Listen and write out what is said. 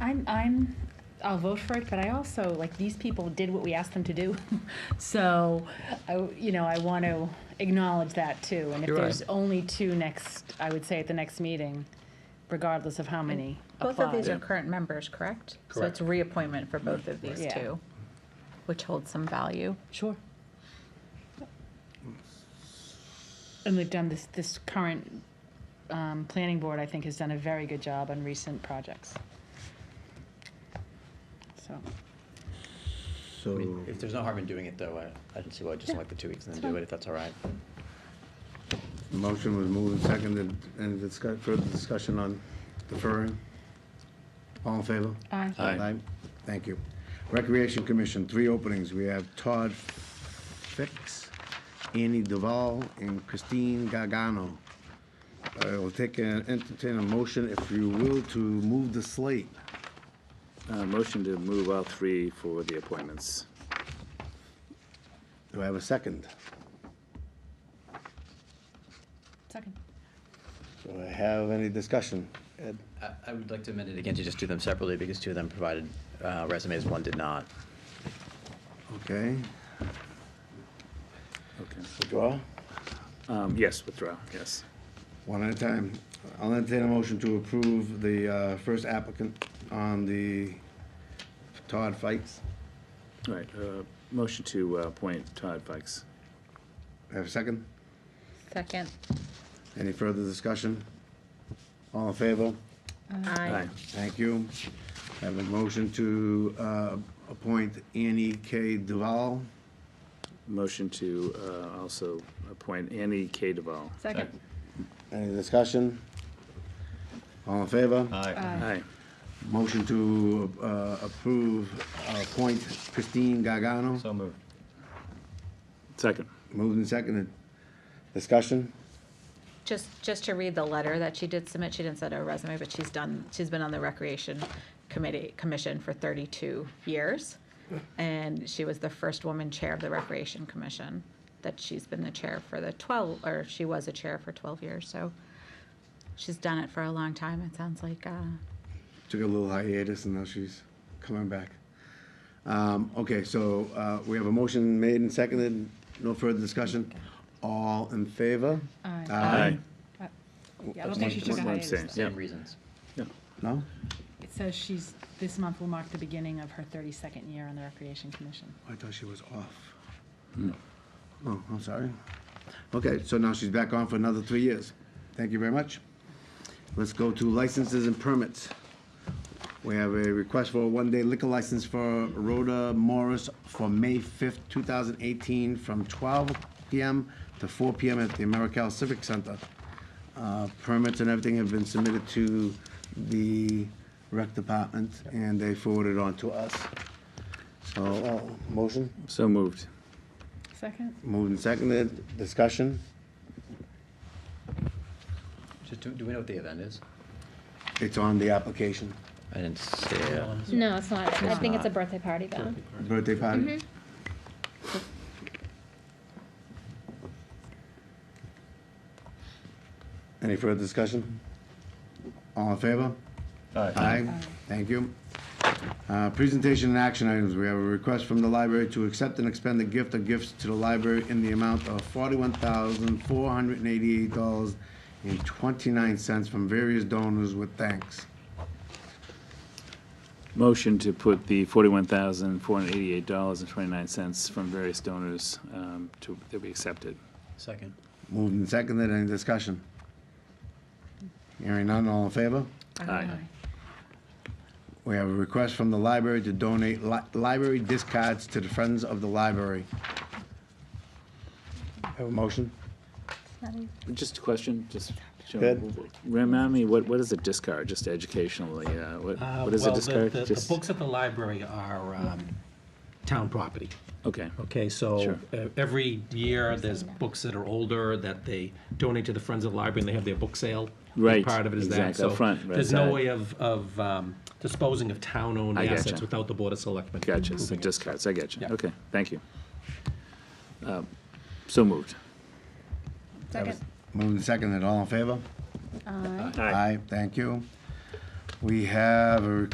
I'm, I'm, I'll vote for it, but I also, like, these people did what we asked them to do. So, I, w- you know, I want to acknowledge that too. And if You're right. there's only two next, I would say at the next meeting, regardless of how many Both of these apply. are current members, correct? So Correct. it's reappointment for both of these Yeah. two, which holds some value. Sure. And they've done this, this current, um, planning board, I think, has done a very good job on recent projects. So, So, If there's no harm in doing it, though, I, I don't see why, just like the two weeks and then do it, if that's all right. motion was moved and seconded, any discuss, further discussion on deferring? All in favor? aye. Uh, Aye. Thank you. Recreation Commission, three openings, we have Todd Fix, Annie Duval, and Christine Gargano. I will take, a- entertain a motion, if you will, to move the slate. Uh, Motion to move all three for the appointments. Do I have a second? Second. Do I have any discussion? Ed? I, I would like to amend it again to just do them separately, because two of them provided uh, resumes, one did not. Okay, Okay. withdraw? Um, Yes, withdraw, yes. One at a time. I'll entertain a motion to approve the uh, first applicant on the Todd Fikes. All right, uh, motion to uh, appoint Todd Fikes. Have a second? Second. Any further discussion? All in favor? Aye. Thank you. Have a motion to uh, appoint Annie K. Duval. Motion to uh, also appoint Annie K. Duval. Second. Any discussion? All in favor? Uh. Aye. Motion to uh, approve, uh, appoint Christine Gargano. So moved. Second. Moved and seconded. Discussion? Just, just to read the letter that she did submit, she didn't send her resume, but she's done, she's been on the Recreation Committee, Commission for 32 years. And she was the first woman chair of the Recreation Commission, that she's been the chair for the 12, or she was a chair for 12 years, so she's done it for a long time, it sounds like. uh, took a little hiatus and now she's coming back. Um, okay, so, uh, we have a motion made and seconded, no further discussion. All in favor? Aye. Aye. Yeah, I don't think she took a Abstain. hiatus. Abstain. though. Yeah. Same reasons. No? It says she's, this month will mark the beginning of her 32nd year on the Recreation Commission. I thought she was off. Oh, I'm sorry. Okay, so now she's back on for another three years. Thank you very much. Let's go to licenses and permits. We have a request for a one-day liquor license for Rhoda Morris for May 5th, 2018, from 12 PM to 4 PM at the AmeriCal Civic Center. Uh, Permits and everything have been submitted to the rec department, and they forwarded on to us. So, uh, motion? So moved. Second? Moved and seconded, discussion? Just, do, do we know what the event is? It's on the application, I didn't see it. No, it's not. I It's think it's a not. birthday party though. birthday party. Any further discussion? All in favor? Aye. Thank you. Uh, Presentation and action items, we have a request from the library to accept and expend the gift of gifts to the library in the amount of forty-one thousand, four hundred and eighty-eight dollars and twenty-nine cents from various donors with thanks. Motion to put the $41,488.29 from various donors um, to, that we accepted. Second. Moved and seconded, any discussion? Hearing none, all in favor? Aye. We have a request from the library to donate li- library discards to the Friends of the Library. Have a motion? Just a question, just, Joe, Ed? remind me, what, what is a discard, just educationally, uh, what, Uh, what is a well, the- discard? the- The Just- books at the library are um, town property, Okay, okay? So Sure. uh, every year, there's books that are older that they donate to the Friends of the Library, and they have their book sale. Big Right, Part of it is that. exactly, up So front, right There's no side. way of, of um, disposing of town-owned I gotcha. assets without the Board of Selectmen. gotcha, so approving it. discards, I gotcha, Yeah. okay, thank you. Um, So moved. Second. Moved and seconded, all in favor? Aye. Aye, thank you. We have a